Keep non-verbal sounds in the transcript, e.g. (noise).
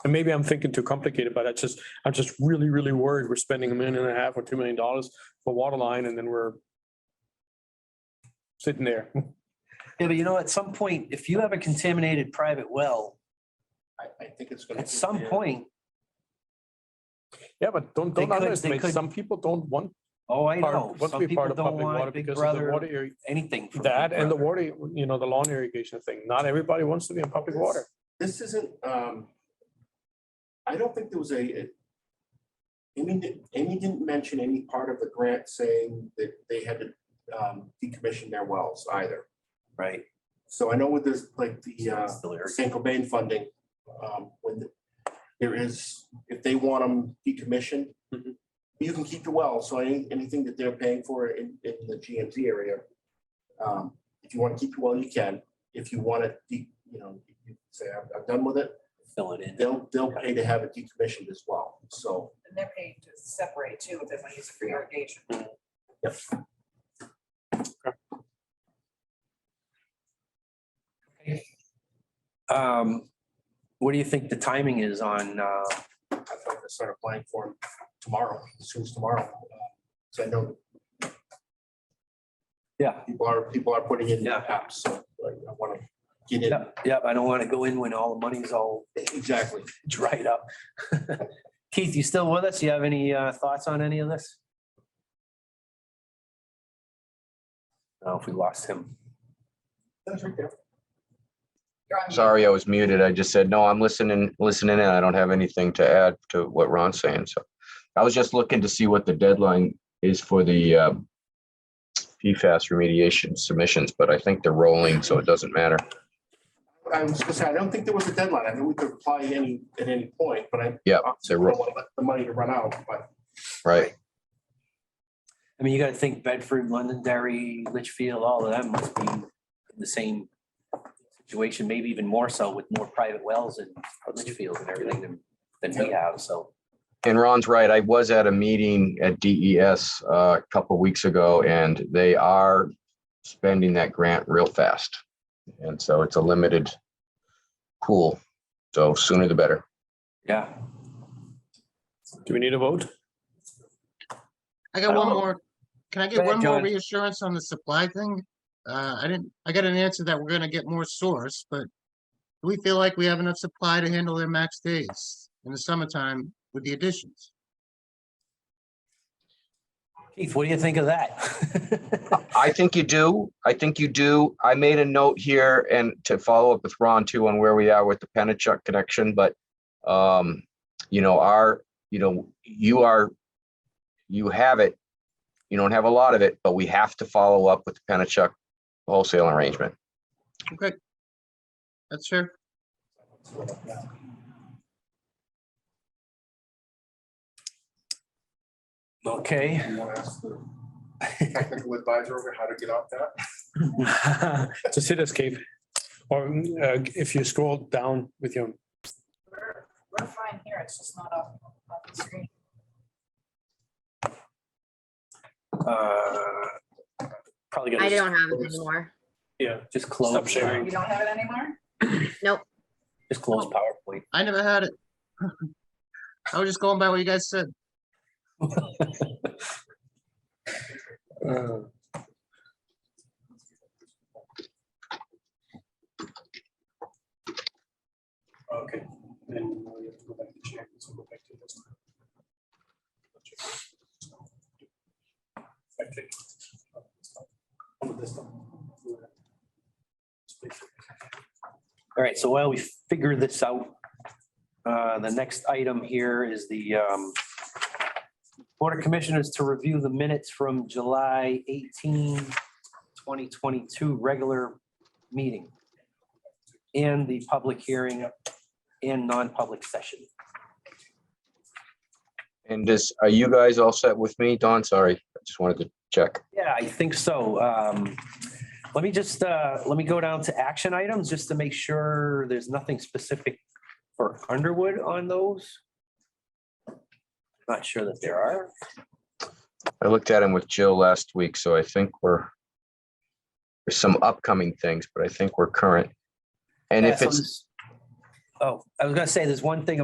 And maybe I'm thinking too complicated, but I just, I'm just really, really worried. We're spending a million and a half or two million dollars for water line and then we're sitting there. (laughs) Yeah, but you know, at some point, if you have a contaminated private well, I, I think it's gonna. at some point, Yeah, but don't, They don't could- they underestimate. could- Some people don't want, oh, I know. part- want to Some be part people of don't public water want Big because of the water Brother, area. anything. from That Big and the Brother. water, you know, the lawn irrigation thing. Not everybody wants to be in public water. This isn't, um, I don't think there was a, a- Amy, didn't- Amy didn't mention any part of the grant saying that they had to, um, decommission their wells either. Right. So I know with this, like the, Ah. uh, Still irrigated. San Cobain funding, um, when the- there is, if they want them decommissioned, Mhm. you can keep the well, so any, anything that they're paying for in, in the GMT area, um, if you want to keep the well, you can. If you want to, you know, you say, I'm, I'm done with it, Fill it in. they'll, they'll pay to have it decommissioned as well, so. And they're paid to separate too, if they want to use it for irrigation. Um, what do you think the timing is on, uh, I thought I started applying for them tomorrow, as soon as tomorrow. So I know yeah, people are, people are putting in Yeah. apps, so I want to get yeah, yeah, I don't want to go in when all the money's all it, exactly. dried up. (laughs) Keith, you still with us? You have any, uh, thoughts on any of this? Oh, if we lost him. That's right there. You're on mute. Sorry, I was muted. I just said, no, I'm listening, listening in. I don't have anything to add to what Ron's saying, so. I was just looking to see what the deadline is for the um, PFAS remediation submissions, but I think they're rolling, so it doesn't matter. I was gonna say, I don't think there was a deadline. I mean, we could apply any, at any point, but I. Yeah, obviously they're don't rolling, want to let The money to run out, but right? I mean, you gotta think Bedford, Londonderry, Litchfield, all of them must be in the same situation, maybe even more so with more private wells in Litchfield and everything than, than we have, so. And Ron's right. I was at a meeting at DES uh, a couple weeks ago, and they are spending that grant real fast. And so it's a limited pool, so sooner the better. Yeah. Do we need a (laughs) vote? I I got one don't- more. Can I Go get ahead, one more John. reassurance on the supply thing? Uh, I didn't, I got an answer that we're gonna get more source, but do we feel like we have enough supply to handle their max days in the summertime with the additions? Keith, what do you think of that? (laughs) I think you do. I think you do. I made a note here and to follow up with Ron too on where we are with the Penachuk connection, but um, you know, our, you know, you are, you have it. You don't have a lot of it, but we have to follow up with the Penachuk wholesale arrangement. That's fair. Okay. you want to ask the technical advisor over how to get off that? Just hit escape. Or uh, if you scroll down with your, We're we're fine here, it's just not up on the screen. Uh, Probably I gotta don't have it close. anymore. just close, Stop sharing. You don't have it anymore? just close PowerPoint. I never had it. (laughs) I was just going by what you guys said. Uh, okay. Then we have to go back to check, so go back to this. Back to- Oh, this one. All right, so while we figure this out, uh, the next item here is the um, Board of Commissioners to review the minutes from July 18, 2022 regular meeting and the public hearing and non-public session. And this, are you guys all set with me? Don, sorry, I just wanted to check. Yeah, I think so. Um, Let me just, uh, let me go down to action items just to make sure there's nothing specific for Underwood on those. Not sure that there are. I looked at him with Jill last week, so I think we're there's some upcoming things, but I think we're current. And Yeah, if Uh, so it's this- Oh, I was gonna say, there's one thing